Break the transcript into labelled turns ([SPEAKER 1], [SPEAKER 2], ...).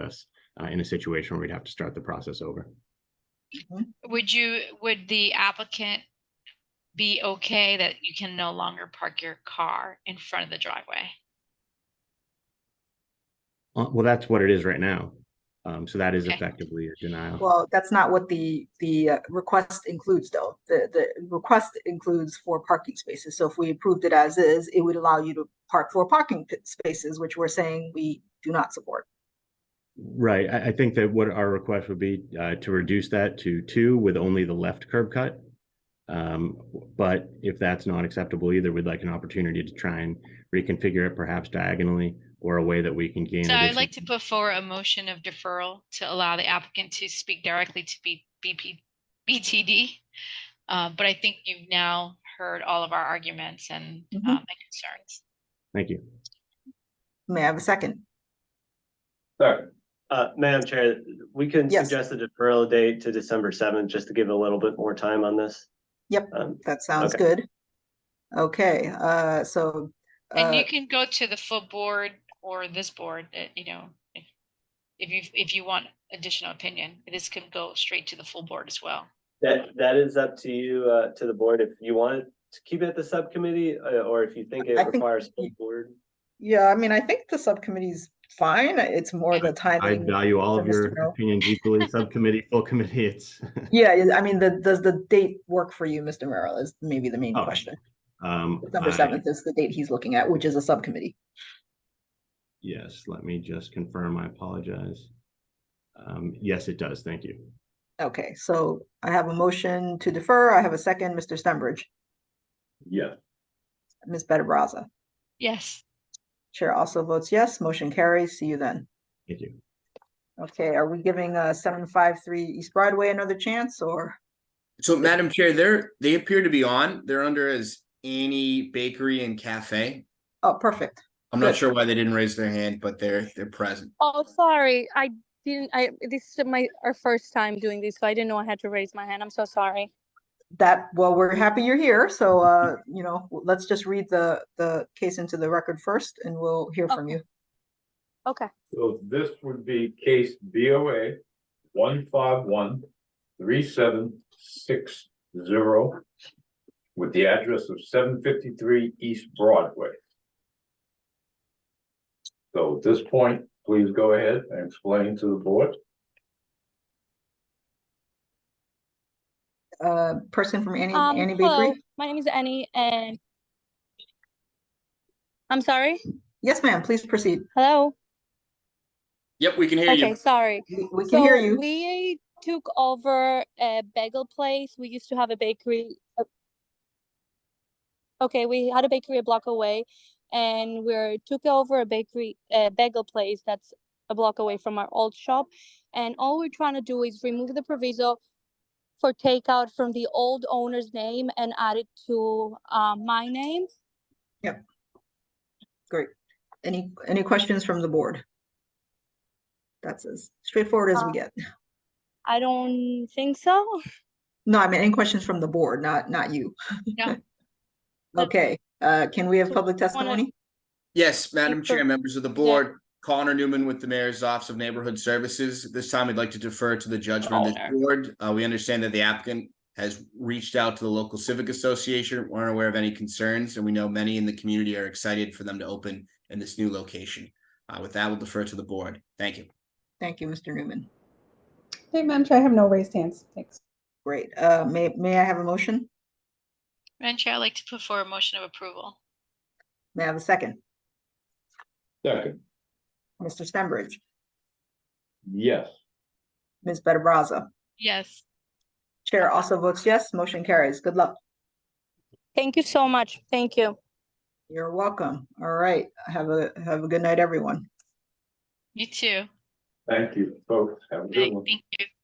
[SPEAKER 1] us uh, in a situation where we'd have to start the process over.
[SPEAKER 2] Would you, would the applicant be okay that you can no longer park your car in front of the driveway?
[SPEAKER 1] Uh, well, that's what it is right now. Um, so that is
[SPEAKER 2] Okay.
[SPEAKER 1] effectively a denial.
[SPEAKER 3] Well, that's not what the, the uh, request includes though. The, the request includes four parking spaces. So if we approved it as is, it would allow you to park four parking p- spaces, which we're saying we do not support.
[SPEAKER 1] right. I, I think that what our request would be uh, to reduce that to two with only the left curb cut. Um, but if that's not acceptable either, we'd like an opportunity to try and reconfigure it perhaps diagonally or a way that we can gain.
[SPEAKER 2] So I'd
[SPEAKER 1] additional-
[SPEAKER 2] like to put forward a motion of deferral to allow the applicant to speak directly to B, BP, BTD. Uh, but I think you've now heard all of our arguments and, uh,
[SPEAKER 3] Mhm.
[SPEAKER 2] my concerns.
[SPEAKER 1] Thank you.
[SPEAKER 3] May I have a second?
[SPEAKER 4] Sorry, uh, Madam Chair, we can
[SPEAKER 3] Yes.
[SPEAKER 4] suggest a deferral date to December seventh, just to give a little bit more time on this.
[SPEAKER 3] Yep.
[SPEAKER 4] Um,
[SPEAKER 3] That sounds
[SPEAKER 4] Okay.
[SPEAKER 3] good. Okay, uh, so,
[SPEAKER 2] And
[SPEAKER 3] uh,
[SPEAKER 2] you can go to the full board or this board, uh, you know, if, if you, if you want additional opinion, this can go straight to the full board as well.
[SPEAKER 4] that, that is up to you, uh, to the board, if you want to keep it at the subcommittee, uh, or if you think
[SPEAKER 3] I
[SPEAKER 4] it
[SPEAKER 3] think-
[SPEAKER 4] requires full board.
[SPEAKER 3] yeah, I mean, I think the subcommittee's fine. It's more the
[SPEAKER 1] I
[SPEAKER 3] timing.
[SPEAKER 1] value all of
[SPEAKER 3] for Mr.
[SPEAKER 1] your
[SPEAKER 3] Merrill.
[SPEAKER 1] opinions equally, subcommittee, full committee. It's
[SPEAKER 3] Yeah, yeah, I mean, the, does the date work for you, Mr. Merrill, is maybe the main
[SPEAKER 1] Oh,
[SPEAKER 3] question.
[SPEAKER 1] um,
[SPEAKER 3] December
[SPEAKER 1] I-
[SPEAKER 3] seventh is the date he's looking at, which is a subcommittee.
[SPEAKER 1] Yes, let me just confirm. I apologize. Um, yes, it does. Thank you.
[SPEAKER 3] Okay, so I have a motion to defer. I have a second, Mr. Stenbridge,
[SPEAKER 4] Yeah.
[SPEAKER 3] Ms. Better Brazza.
[SPEAKER 2] Yes.
[SPEAKER 3] Chair also votes yes, motion carries. See you then.
[SPEAKER 1] Thank you.
[SPEAKER 3] Okay, are we giving uh seven five three East Broadway another chance or?
[SPEAKER 5] So Madam Chair, they're, they appear to be on. They're under as Annie Bakery and Cafe.
[SPEAKER 3] Oh, perfect.
[SPEAKER 5] I'm
[SPEAKER 3] Good.
[SPEAKER 5] not sure why they didn't raise their hand, but they're, they're present.
[SPEAKER 6] Oh, sorry. I didn't, I, this is my, our first time doing this, so I didn't know I had to raise my hand. I'm so sorry.
[SPEAKER 3] That, well, we're happy you're here. So uh, you know, w- let's just read the the case into the record first and we'll hear from
[SPEAKER 6] Okay.
[SPEAKER 3] you.
[SPEAKER 6] Okay.
[SPEAKER 7] So this would be case BOA one five one three seven six zero with the address of seven fifty-three East Broadway. So at this point, please go ahead and explain to the board.
[SPEAKER 3] Uh, person from Annie,
[SPEAKER 6] Um,
[SPEAKER 3] Annie
[SPEAKER 6] hello,
[SPEAKER 3] Bakery?
[SPEAKER 6] my name is Annie and I'm sorry.
[SPEAKER 3] Yes, ma'am, please proceed.
[SPEAKER 6] Hello.
[SPEAKER 5] Yep, we can hear
[SPEAKER 6] Okay,
[SPEAKER 5] you.
[SPEAKER 6] sorry.
[SPEAKER 3] We we can hear
[SPEAKER 6] So
[SPEAKER 3] you.
[SPEAKER 6] We took over a bagel place. We used to have a bakery. uh, Okay, we had a bakery a block away, and we took over a bakery, a bagel place that's a block away from our old shop. And all we're trying to do is remove the proviso for takeout from the old owner's name and add it to uh, my name.
[SPEAKER 3] Great. Any, any questions from the board? That's as straightforward as we
[SPEAKER 6] Uh,
[SPEAKER 3] get.
[SPEAKER 6] I don't think so.
[SPEAKER 3] No, I mean, any questions from the board, not, not you.
[SPEAKER 2] No.
[SPEAKER 3] Okay, uh, can we have
[SPEAKER 6] So,
[SPEAKER 3] public
[SPEAKER 6] wanna-
[SPEAKER 3] testimony?
[SPEAKER 5] Yes, Madam
[SPEAKER 6] Super.
[SPEAKER 5] Chair, members of the board, Connor Newman with the Mayor's Office of Neighborhood Services. This time, I'd like to defer to the judgment of
[SPEAKER 2] Connor.
[SPEAKER 5] the board. Uh, we understand that the applicant has reached out to the local civic association, We're unaware of any concerns, and we know many in the community are excited for them to open in this new location. Uh, with that, we'll defer to the board. Thank you.
[SPEAKER 3] Thank you, Mr. Newman.
[SPEAKER 8] Hey, Madam Chair, I have no raised hands. Thanks.
[SPEAKER 3] Great. Uh, may, may I have a motion?
[SPEAKER 2] Madam Chair, I'd like to put forward a motion of approval.
[SPEAKER 3] May I have a second?
[SPEAKER 7] Second,
[SPEAKER 3] Mr. Stenbridge,
[SPEAKER 7] yes.
[SPEAKER 3] Ms. Better Brazza.
[SPEAKER 2] Yes.
[SPEAKER 3] Chair also votes yes, motion carries. Good luck.
[SPEAKER 6] Thank you so much. Thank you.
[SPEAKER 3] You're welcome. All right, have a, have a good night, everyone.
[SPEAKER 2] You too.
[SPEAKER 7] Thank you, folks. Have a good
[SPEAKER 2] Thank
[SPEAKER 7] one.
[SPEAKER 2] thank you.